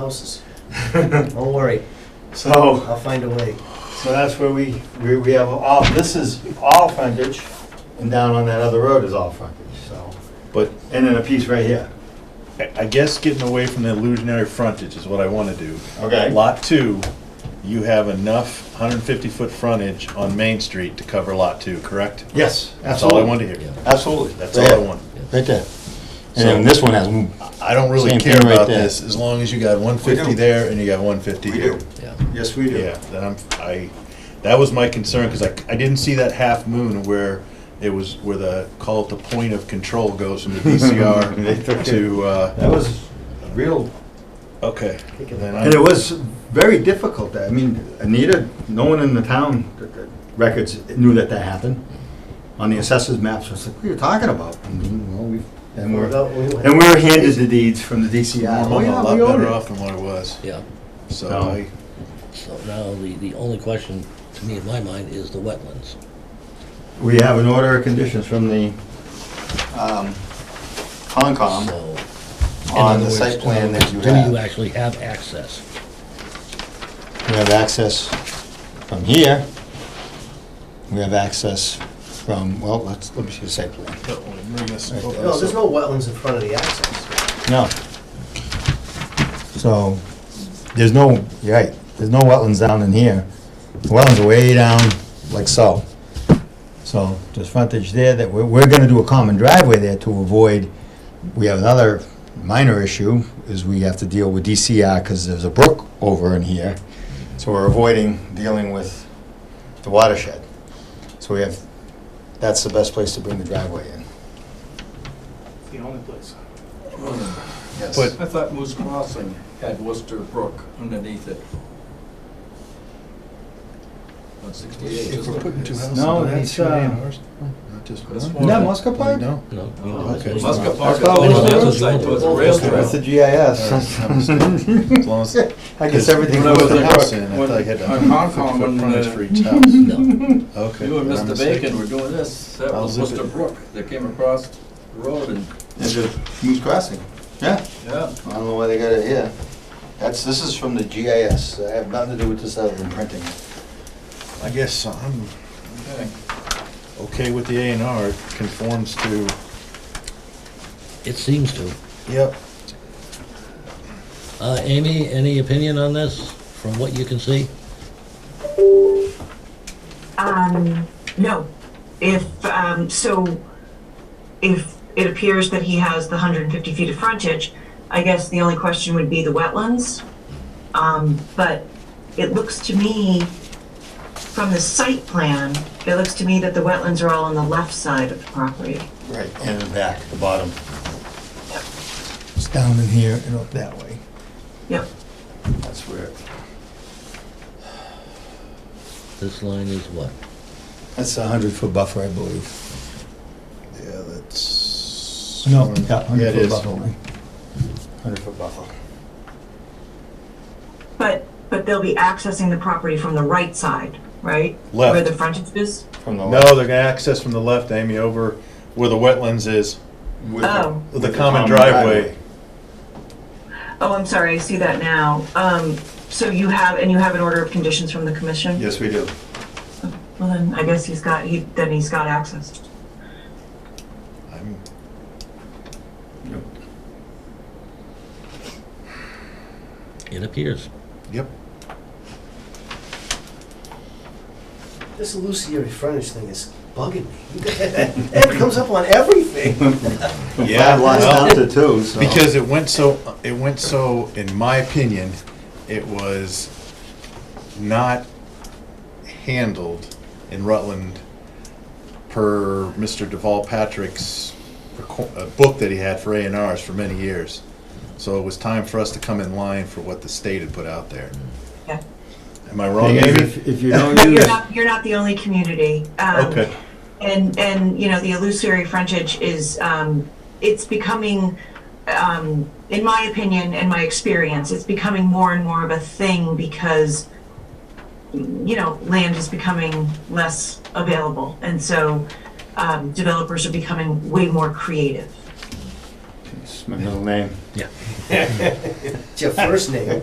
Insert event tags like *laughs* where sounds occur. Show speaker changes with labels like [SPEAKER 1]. [SPEAKER 1] *laughs*
[SPEAKER 2] houses. Don't worry,
[SPEAKER 1] So,
[SPEAKER 2] I'll find a way.
[SPEAKER 1] so that's where we, we, we have all, this is all frontage, and down on that other road is all frontage, so.
[SPEAKER 3] But
[SPEAKER 1] And then a piece right here.
[SPEAKER 3] I I guess getting away from the illusionary frontage is what I want to do.
[SPEAKER 1] Okay.
[SPEAKER 3] Lot two, you have enough 150-foot frontage on Main Street to cover lot two, correct?
[SPEAKER 1] Yes, absolutely.
[SPEAKER 3] That's all I wanted to hear.
[SPEAKER 1] Absolutely.
[SPEAKER 3] That's all I want.
[SPEAKER 4] Right there. And then this one has,
[SPEAKER 3] I don't really
[SPEAKER 4] Same
[SPEAKER 3] care
[SPEAKER 4] thing right
[SPEAKER 3] about
[SPEAKER 4] there.
[SPEAKER 3] this, as long as you got 150
[SPEAKER 1] We do.
[SPEAKER 3] there and you got 150
[SPEAKER 1] We
[SPEAKER 3] here.
[SPEAKER 1] do. Yes, we do.
[SPEAKER 3] Yeah, then I'm, I, that was my concern, because I, I didn't see that half moon where it was, where the, call it the point of control
[SPEAKER 1] *laughs*
[SPEAKER 3] goes from the DCR to, uh,
[SPEAKER 1] That was real,
[SPEAKER 3] okay. then I-
[SPEAKER 1] and it was very difficult. I mean, Anita, no one in the town records knew that that happened. On the assessors maps, I was like, what are you talking about? I mean, well, we, and we're, and we were handed the deeds from the DCI.
[SPEAKER 3] I'm
[SPEAKER 1] Oh,
[SPEAKER 3] a
[SPEAKER 1] yeah,
[SPEAKER 3] lot
[SPEAKER 1] we own
[SPEAKER 3] better
[SPEAKER 1] it.
[SPEAKER 3] off than what I was,
[SPEAKER 5] Yeah,
[SPEAKER 3] so
[SPEAKER 1] No.
[SPEAKER 3] I,
[SPEAKER 5] so now the, the only question, to me in my mind, is the wetlands.
[SPEAKER 1] We have an order of conditions from the um, Concom
[SPEAKER 5] So,
[SPEAKER 1] Um,
[SPEAKER 5] in
[SPEAKER 1] on
[SPEAKER 5] other
[SPEAKER 1] the
[SPEAKER 5] words,
[SPEAKER 1] site plan that you
[SPEAKER 5] Do you
[SPEAKER 1] have.
[SPEAKER 5] actually have access?
[SPEAKER 4] we have access from here. We have access from, well, let's, let me see the site plan.
[SPEAKER 3] Let me bring this
[SPEAKER 4] Right
[SPEAKER 3] up.
[SPEAKER 4] there.
[SPEAKER 2] No, there's no wetlands in front of the access.
[SPEAKER 4] No. So, there's no, you're right, there's no wetlands down in here. The wetlands are way down, like so. So, there's frontage there that, we're, we're gonna do a common driveway there to avoid, we have another minor issue, is we have to deal with DCR, cause there's a brook over in here. So we're avoiding dealing with the watershed. So we have, that's the best place to bring the driveway in.
[SPEAKER 6] The only place.
[SPEAKER 4] Yes.
[SPEAKER 3] But-
[SPEAKER 6] I thought Moose Crossing had Worcester Brook underneath it. On sixty-eight,
[SPEAKER 3] If
[SPEAKER 6] isn't
[SPEAKER 3] we're
[SPEAKER 6] it?
[SPEAKER 3] putting two houses,
[SPEAKER 1] No,
[SPEAKER 3] on that,
[SPEAKER 1] it's,
[SPEAKER 3] two
[SPEAKER 1] uh,
[SPEAKER 3] A&Rs, not just
[SPEAKER 6] This
[SPEAKER 3] one?
[SPEAKER 6] one-
[SPEAKER 1] No, Moscow
[SPEAKER 3] Oh, you
[SPEAKER 1] Pond?
[SPEAKER 3] don't?
[SPEAKER 5] No.
[SPEAKER 6] Oh,
[SPEAKER 3] okay.
[SPEAKER 5] It's
[SPEAKER 6] Muscat
[SPEAKER 5] not.
[SPEAKER 6] Park is
[SPEAKER 1] That's
[SPEAKER 6] on the
[SPEAKER 1] probably-
[SPEAKER 6] other side towards the rail
[SPEAKER 3] Okay, *laughs*
[SPEAKER 6] trail.
[SPEAKER 3] that's
[SPEAKER 1] That's
[SPEAKER 3] the
[SPEAKER 1] the
[SPEAKER 3] Alright, I'm *laughs*
[SPEAKER 1] GIS.
[SPEAKER 3] mistaken. As long as,
[SPEAKER 4] I
[SPEAKER 3] everything
[SPEAKER 4] guess everything
[SPEAKER 6] When I
[SPEAKER 3] with
[SPEAKER 6] was
[SPEAKER 3] the
[SPEAKER 6] in
[SPEAKER 3] house
[SPEAKER 6] Hong-
[SPEAKER 3] in, I thought I had a
[SPEAKER 6] when- in Hong
[SPEAKER 3] hundred
[SPEAKER 6] Kong,
[SPEAKER 3] foot
[SPEAKER 6] when,
[SPEAKER 3] frontage
[SPEAKER 6] uh,
[SPEAKER 3] for *laughs* each house.
[SPEAKER 5] No,
[SPEAKER 3] Okay.
[SPEAKER 6] You and
[SPEAKER 3] then I'm
[SPEAKER 6] Mr.
[SPEAKER 3] mistaken.
[SPEAKER 6] Bacon were doing this, that
[SPEAKER 3] I'll
[SPEAKER 6] was
[SPEAKER 3] zip
[SPEAKER 6] Worcester
[SPEAKER 3] it.
[SPEAKER 6] Brook that came across the road and,
[SPEAKER 1] Is it Moose Crossing? Yeah.
[SPEAKER 6] yeah.
[SPEAKER 1] I don't know why they got it here. That's, this is from the GIS. I have nothing to do with this other than printing it.
[SPEAKER 3] I guess I'm okay with the A and R, it conforms to,
[SPEAKER 5] it seems to.
[SPEAKER 3] yep,
[SPEAKER 5] Uh, Amy, any opinion on this, from what you can see?
[SPEAKER 7] Um, no. If, um, so if it appears that he has the hundred and fifty feet of frontage, I guess the only question would be the wetlands. Um, but it looks to me, from the site plan, it looks to me that the wetlands are all on the left side of the property.
[SPEAKER 4] Right, and the back, the bottom. It's down in here and up that way.
[SPEAKER 7] Yep.
[SPEAKER 1] That's where,
[SPEAKER 5] This line is what?
[SPEAKER 4] That's a hundred foot buffer, I believe.
[SPEAKER 3] yeah, that's.
[SPEAKER 4] No, yeah,
[SPEAKER 3] Yeah,
[SPEAKER 4] hundred
[SPEAKER 3] it
[SPEAKER 4] foot
[SPEAKER 3] is.
[SPEAKER 4] buffer. Hundred foot buffer.
[SPEAKER 7] But, but they'll be accessing the property from the right side, right? Where the
[SPEAKER 3] Left,
[SPEAKER 7] frontage is?
[SPEAKER 4] From the
[SPEAKER 3] no, they're gonna access from the left, Amy, over where the wetlands is,
[SPEAKER 1] with the-
[SPEAKER 7] Oh,
[SPEAKER 3] the common driveway.
[SPEAKER 7] oh, I'm sorry, I see that now. Um, so you have, and you have an order of conditions from the commission?
[SPEAKER 1] Yes, we do.
[SPEAKER 7] Well, then I guess he's got, he, then he's got access.
[SPEAKER 3] I'm
[SPEAKER 5] It appears.
[SPEAKER 3] Yep.
[SPEAKER 2] This illusory frontage thing is bugging me. *laughs* It comes up on everything.
[SPEAKER 1] Yeah, lots
[SPEAKER 3] well-
[SPEAKER 1] down to two, so.
[SPEAKER 3] Because it went so, it went so, in my opinion, it was not handled in Rutland per Mr. Deval Patrick's reco- uh, book that he had for A and Rs for many years. So it was time for us to come in line for what the state had put out there.
[SPEAKER 7] Yeah.
[SPEAKER 3] Am I wrong, Amy?
[SPEAKER 1] If if you don't
[SPEAKER 7] But
[SPEAKER 1] use.
[SPEAKER 7] you're not, you're not the only community. Um,
[SPEAKER 3] Okay,
[SPEAKER 7] And, and, you know, the illusory frontage is, um, it's becoming, um, in my opinion and my experience, it's becoming more and more of a thing because, you know, land is becoming less available. And so, um, developers are becoming way more creative.
[SPEAKER 1] It's my middle name.
[SPEAKER 5] Yeah.
[SPEAKER 1] It's your first name.